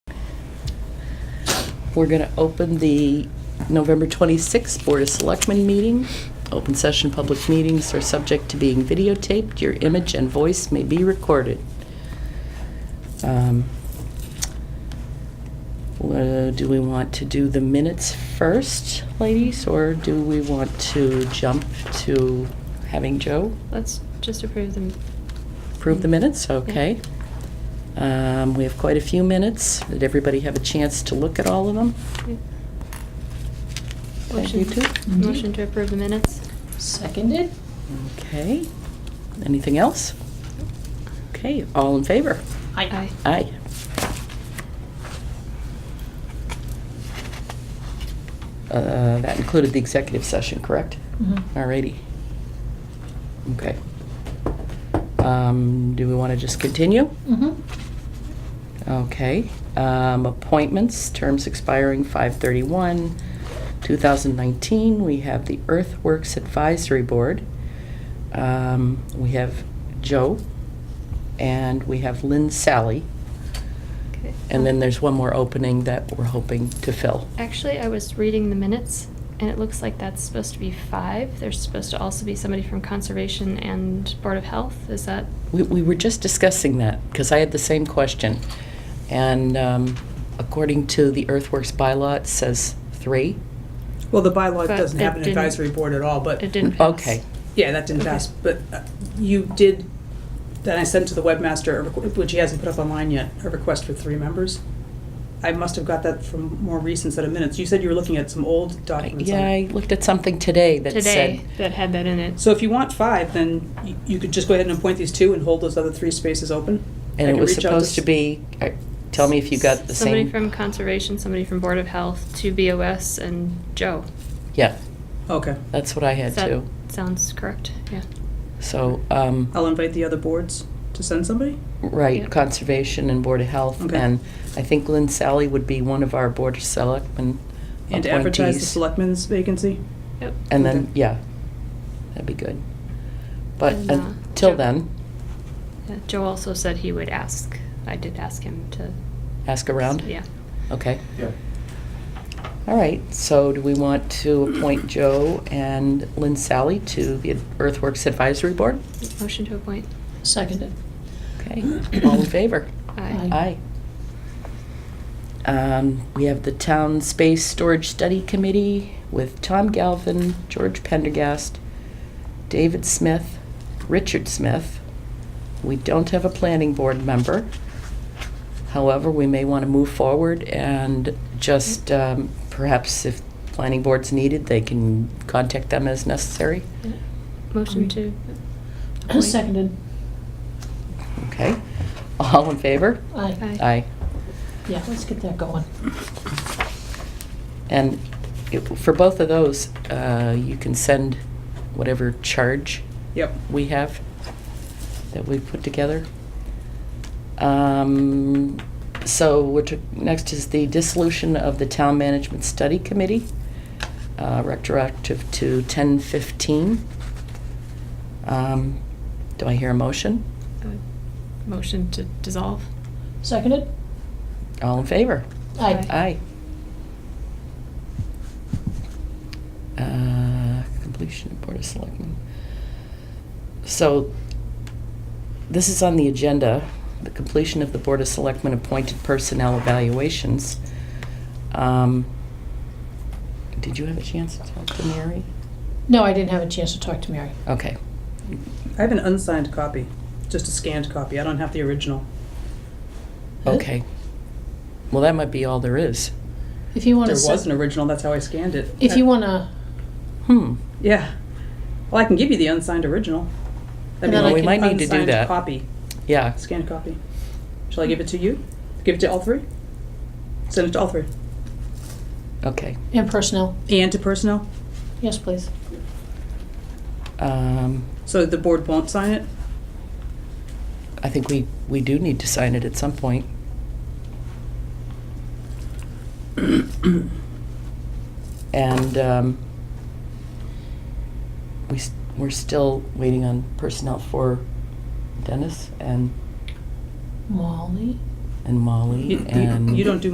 We're going to open the November 26th Board of Selectmen meeting. Open session public meetings are subject to being videotaped. Your image and voice may be recorded. Um, uh, Do we want to do the minutes first, ladies, or do we want to jump to having Joe Let's just approve them. approve the minutes? Okay. Um, We have quite a few minutes. Did everybody have a chance to look at all of them? Yep. Thank you, Motion- too. Mhm. Motion to approve the minutes. Seconded? Okay. Anything else? Okay, all in favor? Aye. Aye. Uh, That included the executive session, correct? Mhm. Alrighty. Okay. Um, Do we want to just continue? Mhm. Okay. Um, Appointments, terms expiring 5/31, 2019. We have the Earthworks Advisory Board. Um, We have Joe, and we have Lynn Sally. Okay. And then there's one more opening that we're hoping to fill. Actually, I was reading the minutes, and it looks like that's supposed to be five. There's supposed to also be somebody from Conservation and Board of Health. Is that? We, we were just discussing that, because I had the same question. And um, according to the earthworks bylaw, it says three. Well, the bylaw But doesn't it have an didn't- advisory board at all, but, It didn't pass. Okay, yeah, that didn't Okay. pass. But uh, you did, then I sent to the webmaster, a requ- which he hasn't put up online yet, a request for three members. I must have got that from more recent set of minutes. You said you were looking at some old documents. on yeah, it. I looked at something today that said, Today, that had that in it. So if you want five, then you- you could just go ahead and appoint these two and hold those other three spaces open. I and it could was reach out supposed to s- be, uh, tell me if you got the Somebody same. from Conservation, somebody from Board of Health, two BOS, and Joe. Yeah, Okay, that's what I had Does that too. Sounds correct, yeah. So, um, I'll invite the other boards to send somebody. right, Yeah. conservation and board of health. Okay. And I think Lynn Sally would be one of our board of selectmen And to advertise the appointees. selectmen's vacancy. Yep. And then, Okay. yeah, that'd be good. But And, uh, until Joe- then, Yeah, Joe also said he would ask. I did ask him to. ask around? Yeah. Okay. Yeah. All right, so do we want to appoint Joe and Lynn Sally to the Earthworks Advisory Board? Motion to appoint. Seconded. Okay, all in favor? Aye. Aye. Um, We have the Town Space Storage Study Committee with Tom Galvin, George Pendergast, David Smith, Richard Smith. We don't have a planning board member. However, we may want to move forward and just um, perhaps if planning board's needed, they can contact them as necessary. Yeah. Motion to. appoint. Seconded. Okay? All in favor? Aye. Aye. Yeah, let's get that going. And it- for both of those, uh, you can send whatever charge Yep. we have that we've put together. Um, So we're to, next is the dissolution of the Town Management Study Committee, uh, retroactive to 10/15. Um, Do I hear a motion? Uh, Motion to dissolve. Seconded? All in favor? Aye. Aye. Uh, Completion of Board of Selectmen. So, this is on the agenda, the completion of the Board of Selectmen appointed personnel evaluations. Um, Did you have a chance to talk to Mary? No, I didn't have a chance to talk to Mary. Okay, I have an unsigned copy, just a scanned copy. I don't have the original. okay. Well, that might be all there is. If you want There to. was an original, that's how I scanned it. If you want to, Hmm, Yeah. Well, I can give you the unsigned original. I And mean, then I the We might need to do unsigned that. Copy, yeah. scanned copy. Shall I give it to you? Give it to all three? Send it to all three. Okay. and personnel, And to personnel? yes, please. Um, So the board won't sign it? I think we, we do need to sign it at some point. And um, we, s- we're still waiting on personnel for Dennis and, Molly? and You- Molly you- and. You don't do